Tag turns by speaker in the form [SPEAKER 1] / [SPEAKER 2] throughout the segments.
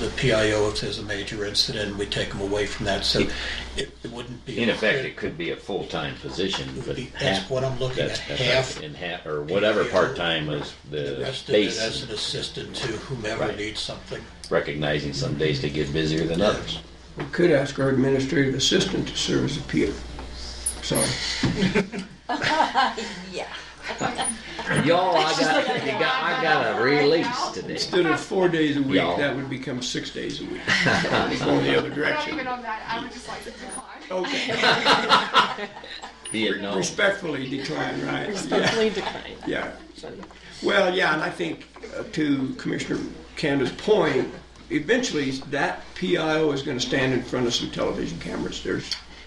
[SPEAKER 1] the PIO if there's a major incident, we take them away from that, so it it wouldn't be.
[SPEAKER 2] In effect, it could be a full-time position, but
[SPEAKER 1] Be-
[SPEAKER 2] half.
[SPEAKER 1] That's what I'm looking at,
[SPEAKER 2] that's- that's
[SPEAKER 1] half,
[SPEAKER 2] right, In half, or whatever part-time is
[SPEAKER 1] the
[SPEAKER 2] the
[SPEAKER 1] rest of it as
[SPEAKER 2] base,
[SPEAKER 1] an assistant to whomever
[SPEAKER 2] Right.
[SPEAKER 1] needs something.
[SPEAKER 2] recognizing some days they get busier than others.
[SPEAKER 3] We could ask our administrative assistant to serve as a peer. Sorry.
[SPEAKER 4] Yeah.
[SPEAKER 2] Y'all, I got, I got, I got a release today.
[SPEAKER 3] Instead of four days a week,
[SPEAKER 2] Yeah.
[SPEAKER 3] that would become six days a week. Going the other
[SPEAKER 5] We're not
[SPEAKER 3] direction.
[SPEAKER 5] even on that, I would just like to decline.
[SPEAKER 3] Okay.
[SPEAKER 2] Be it known.
[SPEAKER 3] Respectfully decline, right? Yeah.
[SPEAKER 6] Respectfully decline.
[SPEAKER 3] Yeah. Well, yeah, and I think uh, to Commissioner Canada's point, eventually that PIO is going to stand in front of some television cameras. There's,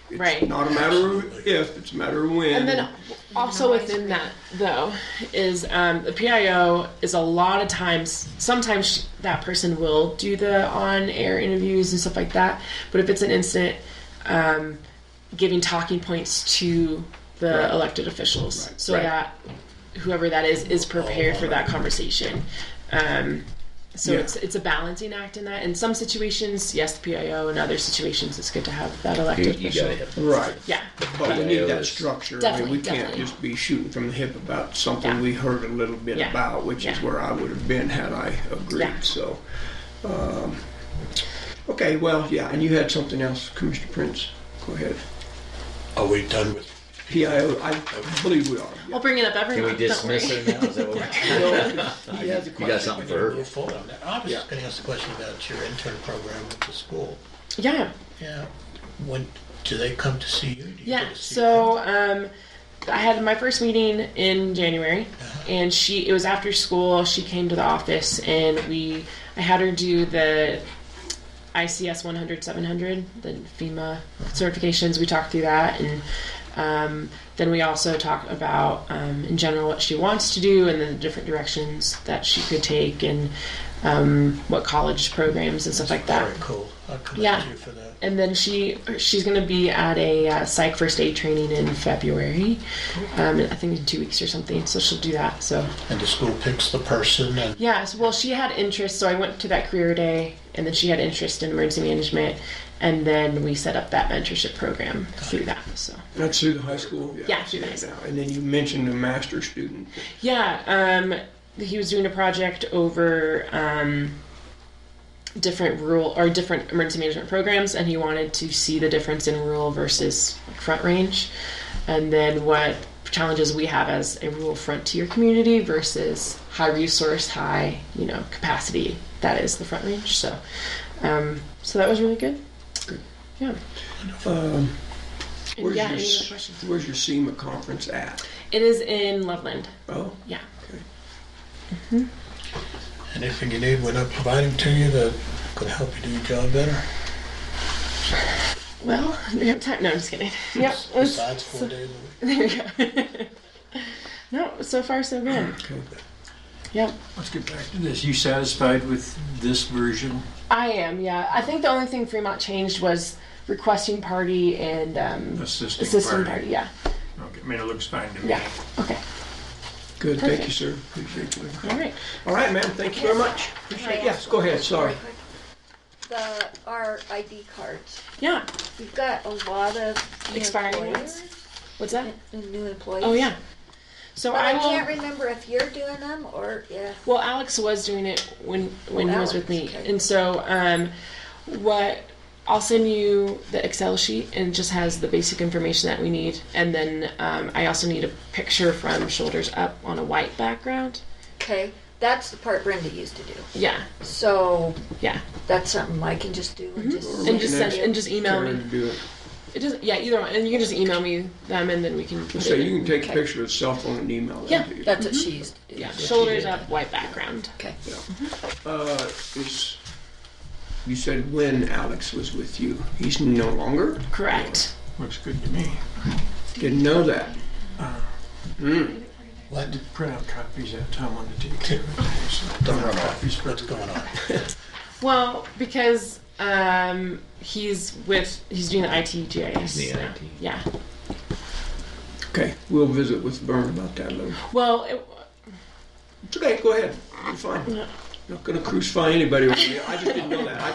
[SPEAKER 3] it's
[SPEAKER 6] Right.
[SPEAKER 3] not a matter of if, it's a matter of when.
[SPEAKER 6] And then also within that though is um, the PIO is a lot of times. Sometimes sh- that person will do the on-air interviews and stuff like that. But if it's an incident, um, giving talking points to the elected officials so
[SPEAKER 2] Right.
[SPEAKER 6] that whoever that is is prepared for that conversation. Um, so
[SPEAKER 3] Yeah.
[SPEAKER 6] it's it's a balancing act in that. In some situations, yes, the PIO. In other situations, it's good to have that
[SPEAKER 2] You,
[SPEAKER 6] elected
[SPEAKER 2] you
[SPEAKER 6] official.
[SPEAKER 2] gotta have
[SPEAKER 3] right.
[SPEAKER 6] Yeah.
[SPEAKER 3] But we need
[SPEAKER 2] PIO
[SPEAKER 3] that
[SPEAKER 2] is-
[SPEAKER 3] structure. I
[SPEAKER 6] Definitely,
[SPEAKER 3] mean, we can't
[SPEAKER 6] definitely.
[SPEAKER 3] just be shooting from the hip about something
[SPEAKER 6] Yeah.
[SPEAKER 3] we heard a little bit
[SPEAKER 6] Yeah.
[SPEAKER 3] about, which is
[SPEAKER 6] Yeah.
[SPEAKER 3] where I would have been had I agreed.
[SPEAKER 6] Yeah.
[SPEAKER 3] So, um, okay, well, yeah, and you had something else, Commissioner Prince. Go ahead.
[SPEAKER 1] Are we done with,
[SPEAKER 3] PIO, I believe we are.
[SPEAKER 6] I'll bring it up every
[SPEAKER 2] Can we
[SPEAKER 6] month. don't worry.
[SPEAKER 2] dismiss her now? Is that what we're-
[SPEAKER 3] He has
[SPEAKER 2] You
[SPEAKER 3] a
[SPEAKER 2] got
[SPEAKER 3] question.
[SPEAKER 2] something for her?
[SPEAKER 1] move forward on that? I was just
[SPEAKER 3] Yeah.
[SPEAKER 1] gonna ask a question about your intern program with the school.
[SPEAKER 6] Yeah,
[SPEAKER 1] Yeah, when, do they come to see you? Do you go
[SPEAKER 6] yeah.
[SPEAKER 1] to see
[SPEAKER 6] So um, I had my first meeting in January, and she it was after school. She came to the office, and we I had her do the ICS 100 700, the FEMA certifications. We talked through that, and um, then we also talked about um, in general what she wants to do and the different directions that she could take, and um, what college programs and stuff like that.
[SPEAKER 1] Very cool. I commend
[SPEAKER 6] Yeah.
[SPEAKER 1] you for that.
[SPEAKER 6] and then she she's going to be at a uh, psych first aid training in February, um, I think in two weeks or something. So she'll do that. So
[SPEAKER 1] And the school picks the person and
[SPEAKER 6] yeah, so, well, she had interest. So I went to that career day, and then she had interest in emergency management, and then we set up that mentorship program through that. So
[SPEAKER 3] That's through the high school?
[SPEAKER 6] Yeah,
[SPEAKER 3] I see
[SPEAKER 6] through the
[SPEAKER 3] that
[SPEAKER 6] high
[SPEAKER 3] now. And then you mentioned a master student.
[SPEAKER 6] yeah, um, he was doing a project over. Um, different rural or different emergency management programs and he wanted to see the difference in rural versus front range and then what challenges we have as a rural frontier community versus high resource high you know capacity that is the front range so um, so that was really good yeah um,
[SPEAKER 3] Where's
[SPEAKER 6] yeah
[SPEAKER 3] your
[SPEAKER 6] any
[SPEAKER 3] s-
[SPEAKER 6] other questions
[SPEAKER 3] Where's your SEMA conference at?
[SPEAKER 6] it is in loveland
[SPEAKER 3] Oh,
[SPEAKER 6] yeah
[SPEAKER 1] anything you need, we're not providing to you that could help you do your job better.
[SPEAKER 6] well we have time no i'm just kidding yep it was-
[SPEAKER 1] Besides four days a week.
[SPEAKER 6] there you go no so far so good
[SPEAKER 3] okay.
[SPEAKER 6] yep
[SPEAKER 7] Let's get back to this. You satisfied with this version?
[SPEAKER 6] I am, yeah. I think the only thing Fremont changed was requesting party and um,
[SPEAKER 7] Assisting
[SPEAKER 6] assisting
[SPEAKER 7] party.
[SPEAKER 6] party. Yeah,
[SPEAKER 7] Okay, I mean, it looks fine to me.
[SPEAKER 6] yeah. Okay,
[SPEAKER 3] Good, thank you,
[SPEAKER 6] Perfect.
[SPEAKER 3] sir. Appreciate you.
[SPEAKER 6] all right.
[SPEAKER 3] All right, ma'am, thank you very much.
[SPEAKER 4] Can I
[SPEAKER 3] Appreciate,
[SPEAKER 4] ask
[SPEAKER 3] yes, go ahead, sorry.
[SPEAKER 4] The, our ID cards,
[SPEAKER 6] Yeah.
[SPEAKER 4] we've got a lot of new
[SPEAKER 6] Expiring ones?
[SPEAKER 4] employers.
[SPEAKER 6] What's that?
[SPEAKER 4] n- New employees.
[SPEAKER 6] Oh yeah. So
[SPEAKER 4] But I
[SPEAKER 6] I
[SPEAKER 4] can't
[SPEAKER 6] will.
[SPEAKER 4] remember if you're doing them or if,
[SPEAKER 6] Well, Alex was doing it when when
[SPEAKER 4] Oh,
[SPEAKER 6] he was with me,
[SPEAKER 4] Alex, okay.
[SPEAKER 6] and so um, what I'll send you the Excel sheet and it just has the basic information that we need, and then um, I also need a picture from shoulders up on a white background.
[SPEAKER 4] okay, that's the part Brenda used to do.
[SPEAKER 6] Yeah,
[SPEAKER 4] So
[SPEAKER 6] yeah,
[SPEAKER 4] that's something I can just do and just.
[SPEAKER 6] Mm-hmm. and just
[SPEAKER 3] Looking
[SPEAKER 6] send
[SPEAKER 3] at
[SPEAKER 6] and just email
[SPEAKER 3] Karen
[SPEAKER 6] me.
[SPEAKER 3] to do it.
[SPEAKER 6] It doesn't. Yeah, either one, and you can just email me them, and then we can.
[SPEAKER 3] So you can take a picture with cell phone and email that
[SPEAKER 6] Yeah,
[SPEAKER 3] to you.
[SPEAKER 4] That's what she used to do.
[SPEAKER 6] Mm-hmm. Yeah, shoulders up, white background.
[SPEAKER 4] Okay.
[SPEAKER 3] Uh, is, you said when Alex was with you. He's no longer?
[SPEAKER 6] Correct.
[SPEAKER 7] Looks good to me.
[SPEAKER 3] Didn't know that.
[SPEAKER 1] What?
[SPEAKER 7] Print out copies that Tom wanted to take care of. it, so-
[SPEAKER 1] Don't run off. What's going on?
[SPEAKER 6] Well, because um, he's with he's doing the ITGIS.
[SPEAKER 2] The
[SPEAKER 6] now.
[SPEAKER 2] IT.
[SPEAKER 6] Yeah.
[SPEAKER 3] Okay, we'll visit with Vern about that later.
[SPEAKER 6] Well, it,
[SPEAKER 3] It's okay, go ahead. You're fine. Not gonna crucify anybody over here. I just didn't know